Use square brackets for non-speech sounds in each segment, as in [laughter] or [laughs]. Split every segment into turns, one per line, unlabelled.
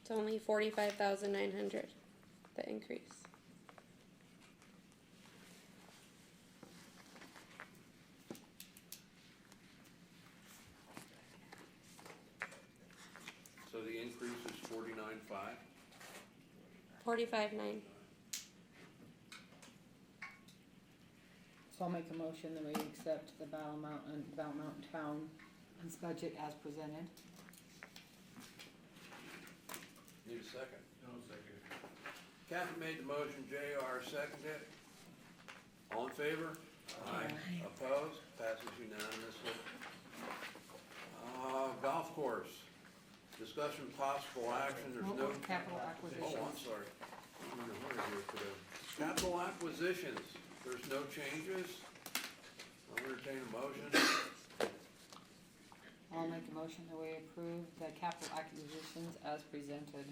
It's only forty-five thousand nine hundred, the increase.
So the increase is forty-nine five?
Forty-five nine.
So I'll make a motion that we accept the Battle Mountain, Battle Mountain Town's budget as presented.
Need a second? No second. Kathy made the motion, JR seconded. it. All in favor? Aye. Opposed? Passes unanimously. Uh, golf course, discussion possible action, there's no.
What was capital
Oh,
acquisitions?
I'm sorry. I'm in a hurry here today. Capital acquisitions, there's no changes. I'll entertain a motion.
I'll make a motion that we approve the capital acquisitions as presented.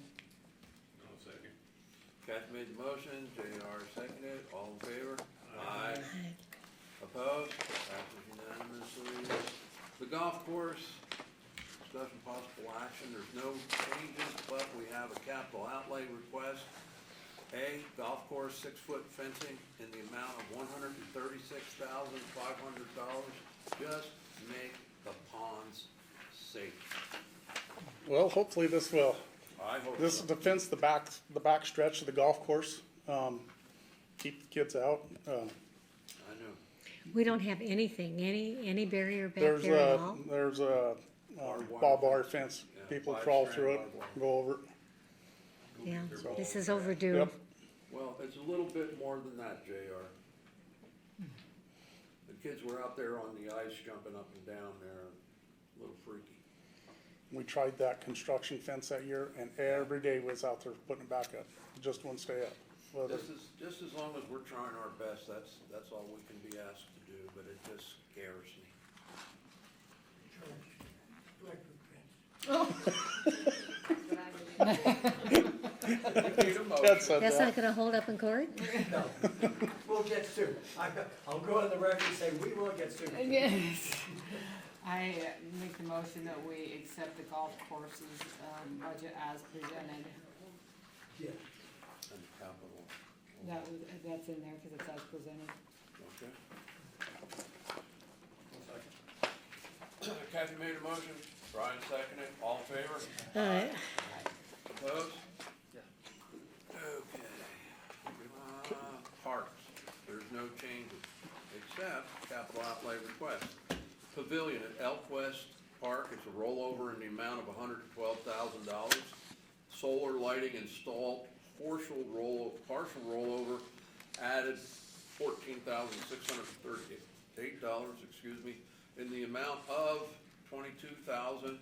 Kath made the motion, JR seconded, it. all in favor? Aye. Opposed? Passes unanimously. The golf course, discussion possible action, there's no changes, but we have a capital outlay request. A, golf course six-foot fencing in the amount of one hundred and thirty-six thousand five hundred dollars. Just make the ponds safe.
Well, hopefully this will.
I hope
This
so.
defends the back, the back stretch of the golf course. Um, keep the kids out. Um,
I know.
We don't have anything, any, any barrier back
there's
there
a,
at all?
there's a uh,
Barbed wire
barbed wire fence.
Yeah,
People
five
crawl
strand
through it,
barbed wire.
go over
Yeah,
They're
this
all-
is overdue.
Yep.
Well, it's a little bit more than that, JR. The kids were out there on the ice jumping up and down there, a little freaky.
it. We tried that construction fence that year and every day was out there putting it back up. Just one stay up. Whether-
Just as, just as long as we're trying our best, that's, that's all we can be asked to do, but it just scares me.
Ted said that.
That's not gonna hold up in court?
No, [laughs] we'll get sued. I, I'll go on the record and say, we will get sued.
Yes. [laughs] I uh, make the motion that we accept the golf courses, um, budget as presented.
Yeah.
And capital,
That was, that's in there because it's as presented.
okay? [coughs] Kathy made a motion, Brian seconded, all in favor?
Uh,
Opposed? Okay. Uh, Parks, there's no changes, except capital outlay request. Pavilion at Elk West Park, it's a rollover in the amount of hundred and twelve thousand dollars. Solar lighting installed, partial roll, partial rollover, added fourteen thousand six hundred and thirty-eight dollars, excuse me, in the amount of twenty-two thousand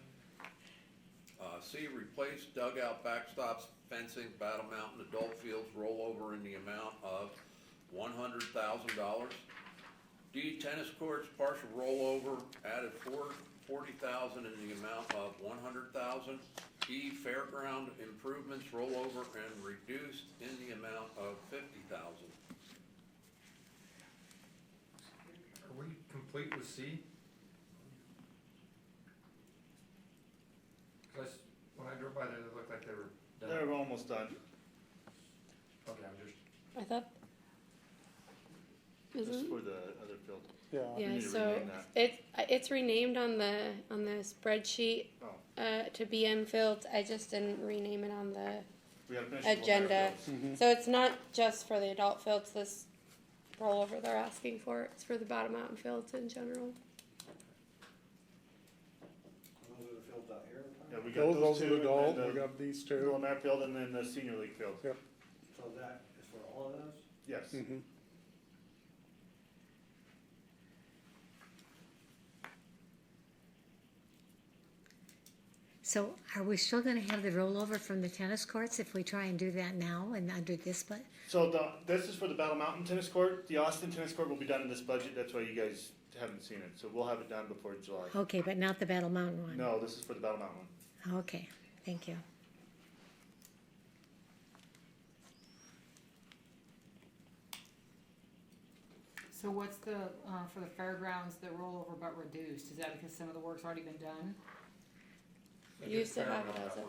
uh, C, replace dugout backstops, fencing, Battle Mountain, adult fields, rollover in the amount of one hundred thousand dollars. D, tennis courts, partial rollover, added four, forty thousand in the amount of one hundred thousand. E, fairground improvements, rollover and reduced in the amount of fifty thousand.
Are we complete with C? 'Cause I s- when I drove by there, it looked like they were done.
They're almost done.
Okay, I'm just,
I thought.
Just
Isn't,
for the other field.
Yeah.
yeah,
need to
so
rename that.
it, it's renamed on the, on the spreadsheet,
Oh,
uh, to BM Fields. I just didn't rename it on the.
we gotta finish. the Lumiere
Agenda.
fields.
So it's not just for the adult fields, this rollover they're asking for, it's for the bottom mountain fields in general.
Those are the fields out here.
Yeah, we got
Those,
those
those are
two.
the
and
gold.
then
We got these
the
two.
Lumiere field and then the senior league field.
Yeah.
So that is for all of those?
Yes.
Mhm.
So are we still gonna have the rollover from the tennis courts if we try and do that now and under this, but,
So the, this is for the Battle Mountain tennis court. The Austin tennis court will be done in this budget. That's why you guys haven't seen it. So we'll have it done before July.
okay, but not the Battle Mountain one?
No, this is for the Battle Mountain.
Okay, thank you.
So what's the, uh, for the fairgrounds, the rollover but reduced? Is that because some of the work's already been done?
Used to have it as a